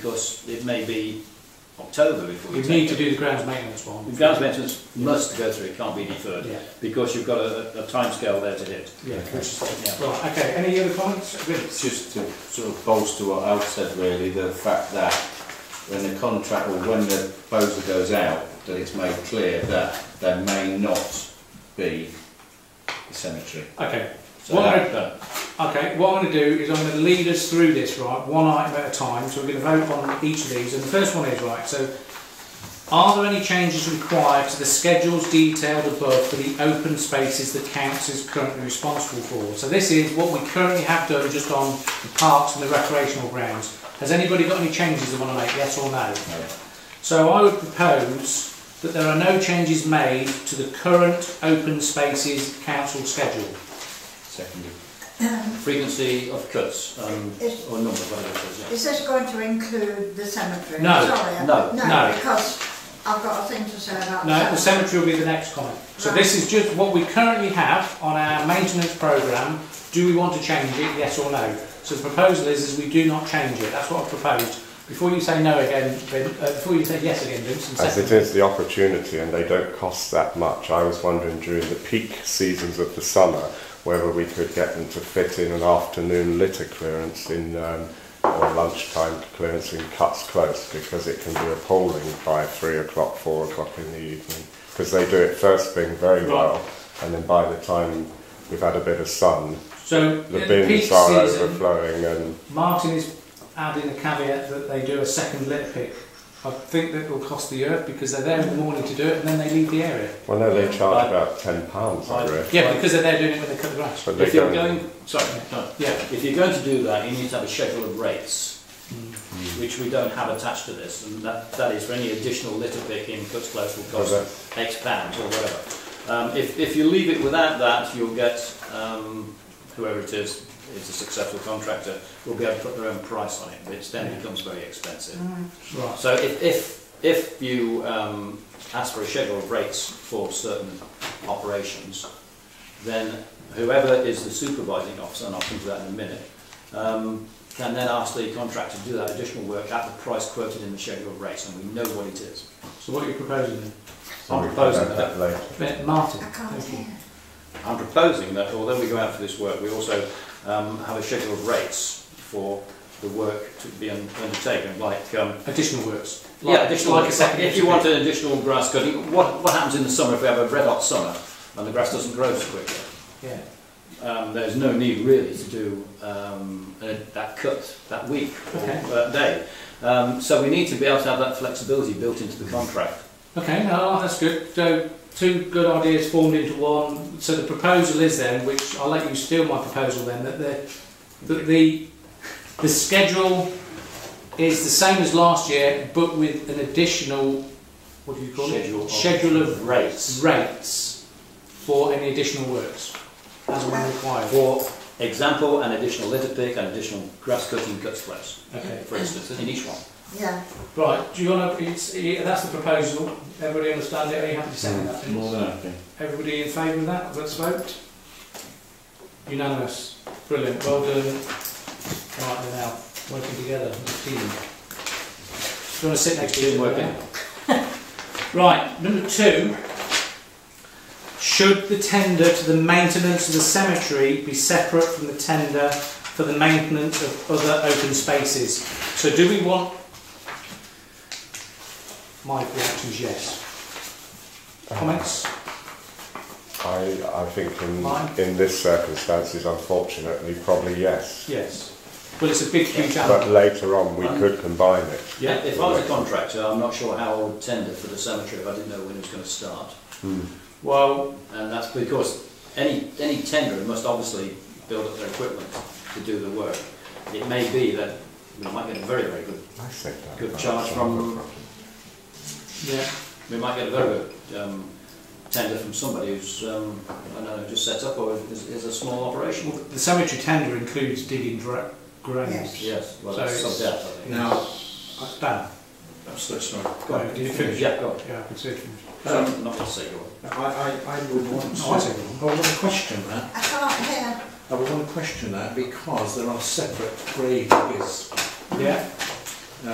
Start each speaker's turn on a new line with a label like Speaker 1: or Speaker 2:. Speaker 1: because it may be October before you
Speaker 2: We
Speaker 1: take
Speaker 2: need
Speaker 1: it.
Speaker 2: to do the grounds maintenance one.
Speaker 1: The grounds maintenance must go through, it can't be deferred,
Speaker 2: Yeah,
Speaker 1: because you've got a, a timescale there to hit.
Speaker 2: yeah, which is,
Speaker 1: Yeah.
Speaker 2: right, okay, any other comments? Vince?
Speaker 3: It's just to sort of bolster what Alf said really, the fact that when the contract or when the proposal goes out, that it's made clear that there may not be a cemetery.
Speaker 2: Okay,
Speaker 3: So
Speaker 2: Well, I-
Speaker 3: that- that-
Speaker 2: okay, what I'm going to do is I'm going to lead us through this, right, one item at a time, so we're going to vote on each of these, and the first one is, right, so are there any changes required to the schedules detailed above for the open spaces the council is currently responsible for? So this is what we currently have done just on the parks and the recreational grounds. Has anybody got any changes they want to make, yes or no?
Speaker 3: no.
Speaker 2: So I would propose that there are no changes made to the current open spaces council schedule.
Speaker 3: Seconded.
Speaker 1: Frequency of cuts, um,
Speaker 4: Is-
Speaker 1: or number, whatever it is, yeah.
Speaker 4: Is this going to include the cemetery?
Speaker 2: No,
Speaker 4: Sorry,
Speaker 1: no,
Speaker 2: no.
Speaker 4: because I've got a thing to say about
Speaker 2: No, the
Speaker 4: the cemetery.
Speaker 2: cemetery will be the next comment. So this is just what we currently have on our maintenance programme. Do we want to change it, yes or no? So the proposal is, is we do not change it. That's what I've proposed. Before you say no again, Vin, uh, before you say yes again, Vince, and
Speaker 5: As it
Speaker 2: second.
Speaker 5: is the opportunity, and they don't cost that much. I was wondering during the peak seasons of the summer whether we could get them to fit in an afternoon litter clearance in um, or lunchtime clearance in Cuts Close because it can be appalling by three o'clock, four o'clock in the evening because they do it first thing very
Speaker 2: Right.
Speaker 5: well, and then by the time we've had a bit of sun,
Speaker 2: So
Speaker 5: the
Speaker 2: at the peak
Speaker 5: bins are
Speaker 2: season,
Speaker 5: overflowing and
Speaker 2: um, Martin is adding a caveat that they do a second litter pick. I think that will cost the earth because they're there in the morning to do it and then they leave the area.
Speaker 5: well, no, they charge
Speaker 1: I-
Speaker 5: about ten pounds, I
Speaker 1: I-
Speaker 5: reckon.
Speaker 2: Yeah, because they're there doing it when they cut the grass.
Speaker 5: but they
Speaker 1: If you're
Speaker 5: don't-
Speaker 1: going, sorry, no.
Speaker 2: Yeah,
Speaker 1: If you're going to do that, you need to have a schedule of rates, which we don't have attached to this, and that, that is for any additional litter pick in cuts close will
Speaker 5: Okay.
Speaker 1: cost X pounds or whatever. Um, if, if you leave it without that, you'll get, um, whoever it is, is a successful contractor, will be able to put their own price on it, which then becomes very expensive.
Speaker 2: right.
Speaker 1: So if, if, if you um, ask for a schedule of rates for certain operations, then whoever is the supervising officer, and I'll come to that in a minute, um, can then ask the contractor to do that additional work at the price quoted in the schedule of rates, and we know what it is.
Speaker 2: So what are you proposing then?
Speaker 5: So
Speaker 1: I'm
Speaker 5: we can
Speaker 1: proposing
Speaker 5: add that later.
Speaker 2: But Martin.
Speaker 4: I can't
Speaker 2: thank you.
Speaker 4: hear.
Speaker 1: I'm proposing that although we go out for this work, we also um, have a schedule of rates for the work to be un- undertaken, like um,
Speaker 2: Additional works.
Speaker 1: yeah, additional.
Speaker 2: like a second.
Speaker 1: if you want an additional grass cutting, what, what happens in the summer if we have a red hot summer and the grass doesn't grow so quickly?
Speaker 2: Yeah.
Speaker 1: Um, there's no need really to do um, uh, that cut that week or
Speaker 2: Okay.
Speaker 1: that day. Um, so we need to be able to have that flexibility built into the contract.
Speaker 2: Okay, no, oh, that's good. So two good ideas formed into one. So the proposal is then, which I'll let you steal my proposal then, that the that the the schedule is the same as last year, but with an additional what do you call
Speaker 1: Schedule
Speaker 2: it?
Speaker 1: of-
Speaker 2: Schedule of
Speaker 1: Rates
Speaker 2: rates for any additional works as when required.
Speaker 1: for example, an additional litter pick, an additional grass cutting cuts close,
Speaker 2: Okay.
Speaker 1: for instance, in each one.
Speaker 4: Yeah,
Speaker 2: Right. Do you want to? It's, yeah, that's the proposal. Everybody understand it? Are you happy to second that? Vince?
Speaker 3: More than happy.
Speaker 2: Everybody in favour of that? Let's vote. Unanimous. Brilliant. Well done. Right, we're now working together as a team. Do you want to sit next to
Speaker 1: Team
Speaker 2: you?
Speaker 1: working.
Speaker 2: right, number two. Should the tender to the maintenance of the cemetery be separate from the tender for the maintenance of other open spaces? So do we want... My reaction is yes. Comments?
Speaker 5: I, I think in,
Speaker 2: Mine?
Speaker 5: in this circumstances, unfortunately, probably yes.
Speaker 2: Yes. Well, it's a big, huge
Speaker 5: But
Speaker 2: animal.
Speaker 5: later on, we could combine it.
Speaker 1: Yeah, if I was a contractor, I'm not sure how I would tender for the cemetery if I didn't know when it was going to start.
Speaker 2: Well,
Speaker 1: And that's because any, any tenderer must obviously build up their equipment to do the work. It may be that we might get a very, very good,
Speaker 5: I think that.
Speaker 1: Good
Speaker 5: that's
Speaker 1: charge
Speaker 5: not
Speaker 1: from-
Speaker 5: a problem.
Speaker 2: yeah.
Speaker 1: we might get a very good um, tender from somebody who's, um, I don't know, just set up or is, is a small operation.
Speaker 2: The cemetery tender includes digging dra- graves.
Speaker 1: Yes, well, that's
Speaker 2: So
Speaker 1: sub
Speaker 2: it's-
Speaker 1: doubt, I think.
Speaker 2: Now, Dan,
Speaker 6: Absolutely, sorry.
Speaker 1: Go on.
Speaker 2: no, did you finish?
Speaker 1: Yeah, go on.
Speaker 2: yeah, I can see it from.
Speaker 1: Um, not to say go on.
Speaker 6: I, I, I would want to...
Speaker 2: Oh, I see.
Speaker 6: I would want to question that.
Speaker 4: I can't hear.
Speaker 6: I would want to question that because there are separate grave diggers.
Speaker 2: Yeah,